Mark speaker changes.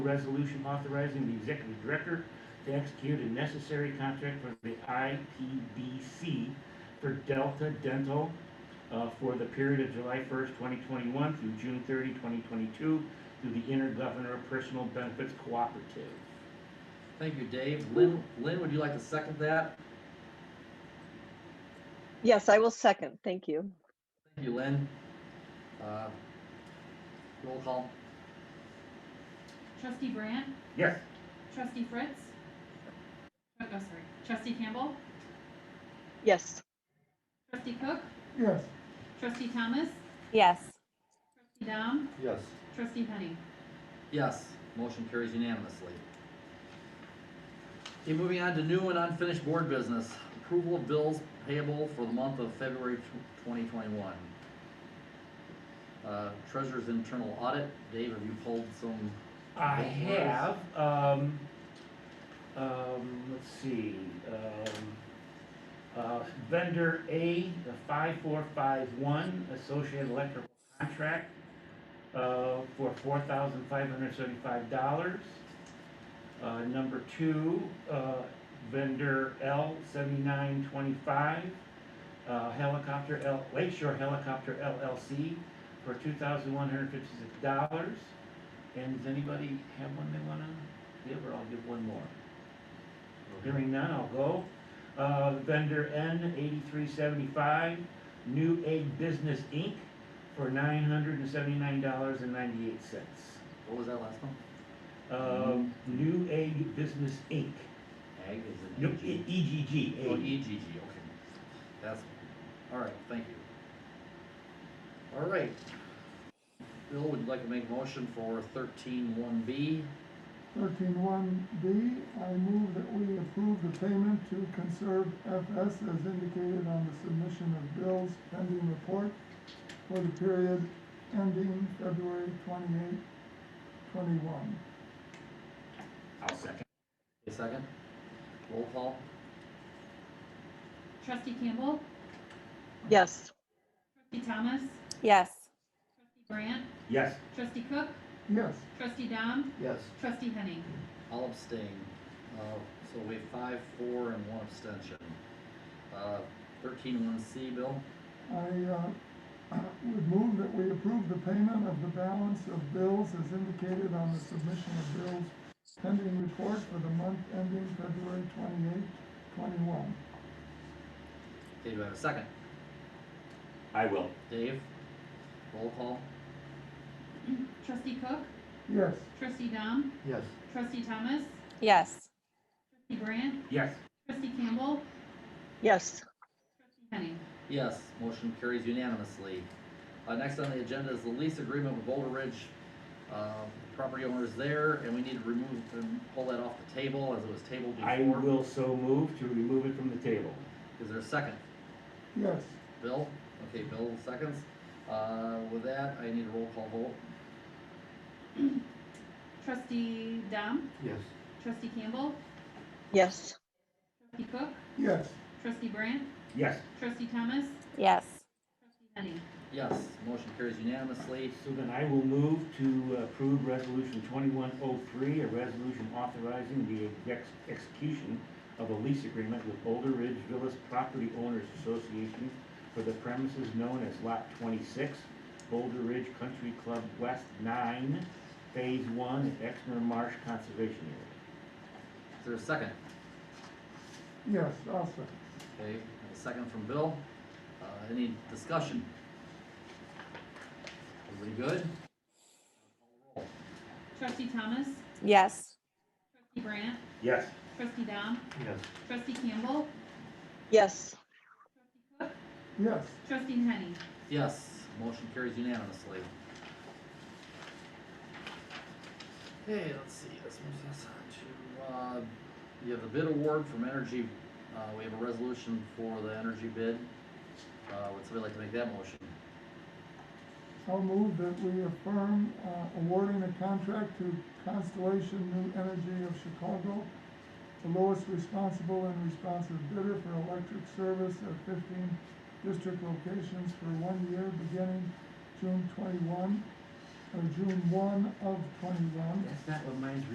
Speaker 1: resolution authorizing the executive director to execute a necessary contract for the IPDC for Delta Dental uh, for the period of July 1st, 2021 through June 30, 2022, through the Intergovernor Personal Benefits Cooperative.
Speaker 2: Thank you, Dave. Lynn, Lynn, would you like to second that?
Speaker 3: Yes, I will second. Thank you.
Speaker 2: Thank you, Lynn. Uh, Roll call.
Speaker 4: Trustee Brand,
Speaker 1: Yes.
Speaker 4: trustee Fritz. Oh, oh, sorry, trustee Campbell,
Speaker 3: Yes.
Speaker 4: trustee Cook,
Speaker 5: yes,
Speaker 4: trustee Thomas,
Speaker 6: yes,
Speaker 4: trustee Dom,
Speaker 2: Yes.
Speaker 4: trustee Penny.
Speaker 2: Yes, motion carries unanimously. Okay, moving on to new and unfinished board business. Approval of bills payable for the month of February twenty twenty-one. Uh, Treasurer's internal audit. Dave, have you pulled some?
Speaker 1: I
Speaker 2: Yes.
Speaker 1: have, um, um, let's see, um, uh, vendor A, the five four five one, Associated Electrical Contract, uh, for four thousand five hundred seventy-five dollars. Uh, number two, uh, vendor L seventy-nine twenty-five, uh, helicopter L, Lakeshore Helicopter LLC for two thousand one hundred fifty-six dollars. And does anybody have one they wanna give, or I'll give one more? Hearing none, I'll go. Uh, vendor N eighty-three seventy-five, New Egg Business Inc. for nine hundred and seventy-nine dollars and ninety-eight cents.
Speaker 2: What was that last one?
Speaker 1: Um, New Egg Business Inc.
Speaker 2: Ag is
Speaker 1: No,
Speaker 2: an
Speaker 1: E- EGG,
Speaker 2: Oh,
Speaker 1: egg.
Speaker 2: EGG, okay. That's, all right, thank you. All right. Bill, would you like to make a motion for thirteen one B?
Speaker 5: thirteen one B, I move that we approve the payment to conserve FS as indicated on the submission of bills pending report for the period ending February twenty-eight, twenty-one.
Speaker 1: I'll second.
Speaker 2: A second? Roll call?
Speaker 4: Trustee Campbell,
Speaker 3: Yes.
Speaker 4: trustee Thomas,
Speaker 6: yes,
Speaker 4: trustee Brand,
Speaker 1: Yes.
Speaker 4: trustee Cook,
Speaker 5: Yes,
Speaker 4: trustee Dom,
Speaker 2: Yes.
Speaker 4: trustee Penny.
Speaker 2: I'll abstain. Uh, so we have five, four, and one abstention. Uh, thirteen one C, Bill?
Speaker 5: I, uh, would move that we approve the payment of the balance of bills as indicated on the submission of bills pending report for the month ending February twenty-eight, twenty-one.
Speaker 2: Okay, do I have a second?
Speaker 1: I will.
Speaker 2: Dave? Roll call?
Speaker 4: Trustee Cook,
Speaker 5: Yes.
Speaker 4: trustee Dom,
Speaker 2: Yes.
Speaker 4: trustee Thomas,
Speaker 6: yes,
Speaker 4: trustee Brand,
Speaker 1: Yes.
Speaker 4: trustee Campbell,
Speaker 3: Yes.
Speaker 4: trustee Penny.
Speaker 2: Yes, motion carries unanimously. Uh, next on the agenda is the lease agreement with Boulder Ridge, uh, property owners there, and we need to remove, and pull that off the table as it was tabled
Speaker 1: I
Speaker 2: before.
Speaker 1: will so move to remove it from the table.
Speaker 2: Is there a second?
Speaker 5: Yes.
Speaker 2: Bill? Okay, Bill seconds. Uh, with that, I need a roll call vote.
Speaker 4: Trustee Dom,
Speaker 2: Yes.
Speaker 4: trustee Campbell,
Speaker 3: Yes.
Speaker 4: trustee Cook,
Speaker 5: Yes.
Speaker 4: trustee Brand,
Speaker 1: Yes.
Speaker 4: trustee Thomas,
Speaker 6: yes,
Speaker 4: trustee Penny.
Speaker 2: Yes, motion carries unanimously.
Speaker 1: So then I will move to approve Resolution 2103, a resolution authorizing the ex- execution of a lease agreement with Boulder Ridge Villas Property Owners Association for the premises known as Lot 26, Boulder Ridge Country Club West 9, Phase 1, at Exner Marsh Conservation
Speaker 2: Is there a second?
Speaker 5: Yes, also.
Speaker 2: Okay, a second from Bill. Uh, any discussion? Everybody good?
Speaker 4: Trustee Thomas,
Speaker 6: yes,
Speaker 4: trustee Brand,
Speaker 1: Area. Yes.
Speaker 4: trustee Dom,
Speaker 2: Yes.
Speaker 4: trustee Campbell,
Speaker 3: Yes.
Speaker 5: Yes.
Speaker 4: trustee Henny.
Speaker 2: Yes, motion carries unanimously. Okay, let's see, this moves us on to, uh, you have the bid award from Energy, uh, we have a resolution for the energy bid. Uh, would somebody like to make that motion?
Speaker 5: I'll move that we affirm uh, awarding a contract to Constellation New Energy of Chicago, the lowest responsible and responsive bidder for electric service at fifteen district locations for one year beginning June twenty-one
Speaker 7: or June one of twenty-one.
Speaker 5: That's not what mine's